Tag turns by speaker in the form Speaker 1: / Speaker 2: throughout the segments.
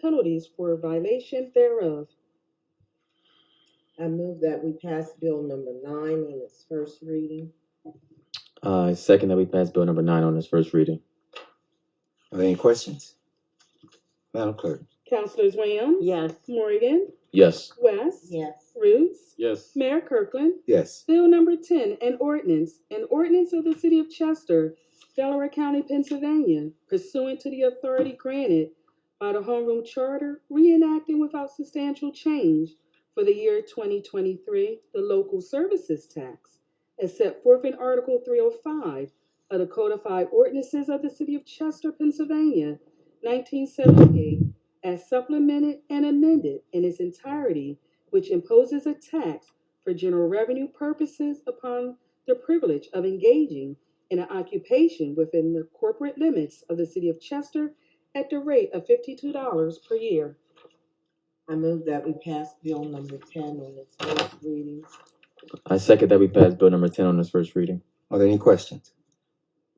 Speaker 1: penalties for violation thereof.
Speaker 2: I move that we pass bill number nine on its first reading.
Speaker 3: Uh, second that we pass bill number nine on its first reading.
Speaker 4: Are there any questions? Madam Clerk?
Speaker 1: Councilors Williams?
Speaker 5: Yes.
Speaker 1: Morgan?
Speaker 3: Yes.
Speaker 1: West?
Speaker 2: Yes.
Speaker 1: Roots?
Speaker 3: Yes.
Speaker 1: Mayor Kirkland?
Speaker 4: Yes.
Speaker 1: Bill number ten, an ordinance, an ordinance of the city of Chester, Delaware County, Pennsylvania, pursuant to the authority granted by the homeroom charter, reenacting without substantial change for the year twenty twenty-three, the local services tax, as set forth in Article three oh five of the codified ordinances of the city of Chester, Pennsylvania, nineteen seventy-eight, as supplemented and amended in its entirety, which imposes a tax for general revenue purposes upon the privilege of engaging in an occupation within the corporate limits of the city of Chester at the rate of fifty-two dollars per year.
Speaker 2: I move that we pass bill number ten on its first reading.
Speaker 3: I second that we pass bill number ten on its first reading.
Speaker 4: Are there any questions?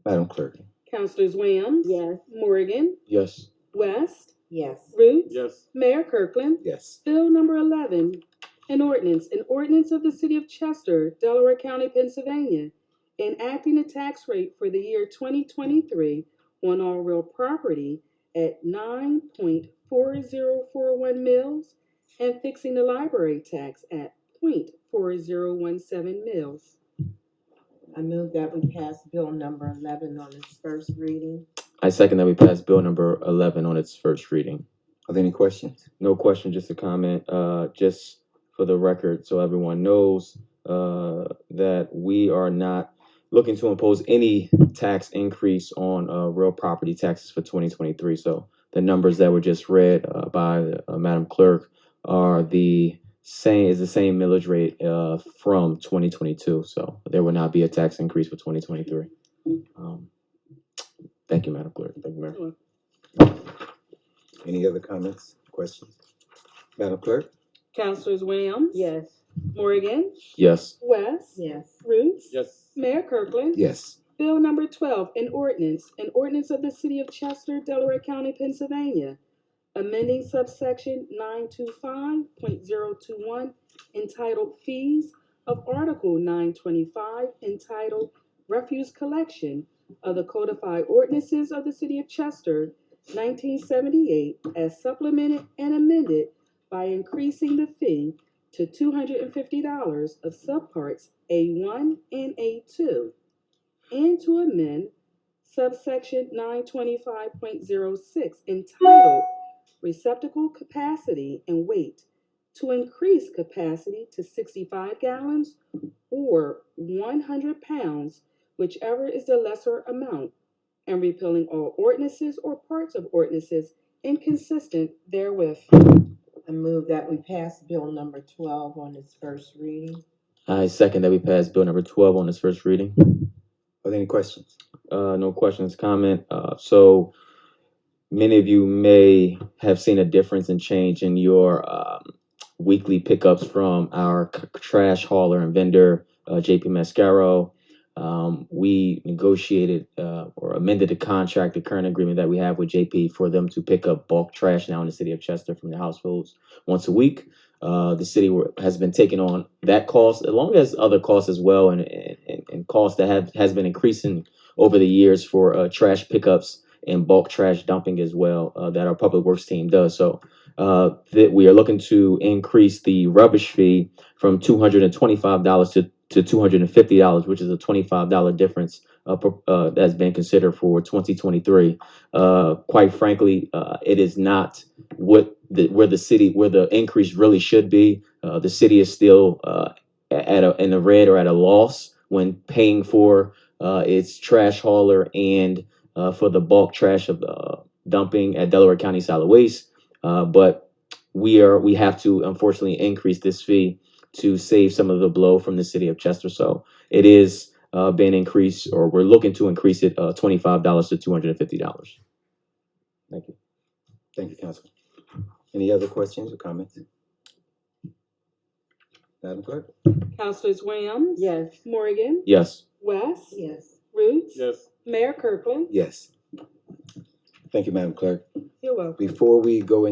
Speaker 4: Madam Clerk?
Speaker 1: Councilors Williams?
Speaker 5: Yes.
Speaker 1: Morgan?
Speaker 3: Yes.
Speaker 1: West?
Speaker 2: Yes.
Speaker 1: Roots? Mayor Kirkland?
Speaker 4: Yes.
Speaker 1: Bill number eleven, an ordinance, an ordinance of the city of Chester, Delaware County, Pennsylvania, enacting a tax rate for the year twenty twenty-three on all real property at nine point four zero four one mils and fixing the library tax at point four zero one seven mils.
Speaker 2: I move that we pass bill number eleven on its first reading.
Speaker 3: I second that we pass bill number eleven on its first reading.
Speaker 4: Are there any questions?
Speaker 3: No question, just a comment. Uh, just for the record, so everyone knows uh, that we are not looking to impose any tax increase on uh, real property taxes for 2023. So the numbers that were just read uh, by uh, Madam Clerk are the same is the same millage rate uh, from 2022. So there will not be a tax increase for 2023. Um, thank you, Madam Clerk. Thank you, Mayor.
Speaker 4: Any other comments, questions? Madam Clerk?
Speaker 1: Councilors Williams?
Speaker 5: Yes.
Speaker 1: Morgan?
Speaker 3: Yes.
Speaker 1: West?
Speaker 2: Yes.
Speaker 1: Roots?
Speaker 3: Yes.
Speaker 1: Mayor Kirkland?
Speaker 4: Yes.
Speaker 1: Bill number twelve, an ordinance, an ordinance of the city of Chester, Delaware County, Pennsylvania, amending subsection nine two five point zero two one entitled Fees of Article nine twenty-five entitled Refuse Collection of the Codified Ordinances of the City of Chester, nineteen seventy-eight, as supplemented and amended by increasing the fee to two hundred and fifty dollars of subparts A one and A two and to amend subsection nine twenty-five point zero six entitled Receptacle Capacity and Weight to increase capacity to sixty-five gallons or one hundred pounds, whichever is the lesser amount, and repealing all ordinances or parts of ordinances inconsistent therewith.
Speaker 2: I move that we pass bill number twelve on its first reading.
Speaker 3: I second that we pass bill number 12 on its first reading.
Speaker 4: Are there any questions?
Speaker 3: Uh, no questions, comment. Uh, so many of you may have seen a difference in change in your um, weekly pickups from our c- trash hauler and vendor, uh, JP Mascaro. Um, we negotiated uh, or amended the contract, the current agreement that we have with JP for them to pick up bulk trash now in the city of Chester from the households once a week. Uh, the city were, has been taking on that cost, along as other costs as well, and, and, and costs that have has been increasing over the years for uh, trash pickups and bulk trash dumping as well uh, that our public works team does. So uh, that we are looking to increase the rubbish fee from two hundred and twenty-five dollars to to two hundred and fifty dollars, which is a twenty-five dollar difference uh, pro- uh, that's been considered for twenty twenty-three. Uh, quite frankly, uh, it is not what the, where the city where the increase really should be. Uh, the city is still uh, a- at a, in the red or at a loss when paying for uh, it's trash hauler and uh, for the bulk trash of uh, dumping at Delaware County Solid Waste. Uh, but we are we have to unfortunately increase this fee to save some of the blow from the city of Chester. So it is uh, been increased, or we're looking to increase it uh, twenty five dollars to two hundred and fifty dollars. Thank you.
Speaker 4: Thank you, Council. Any other questions or comments? Madam Clerk?
Speaker 1: Councilors Williams?
Speaker 5: Yes.
Speaker 1: Morgan?
Speaker 3: Yes.
Speaker 1: West?
Speaker 2: Yes.
Speaker 1: Roots? Mayor Kirkland?
Speaker 4: Yes. Thank you, Madam Clerk.
Speaker 1: You're welcome.
Speaker 4: Before we go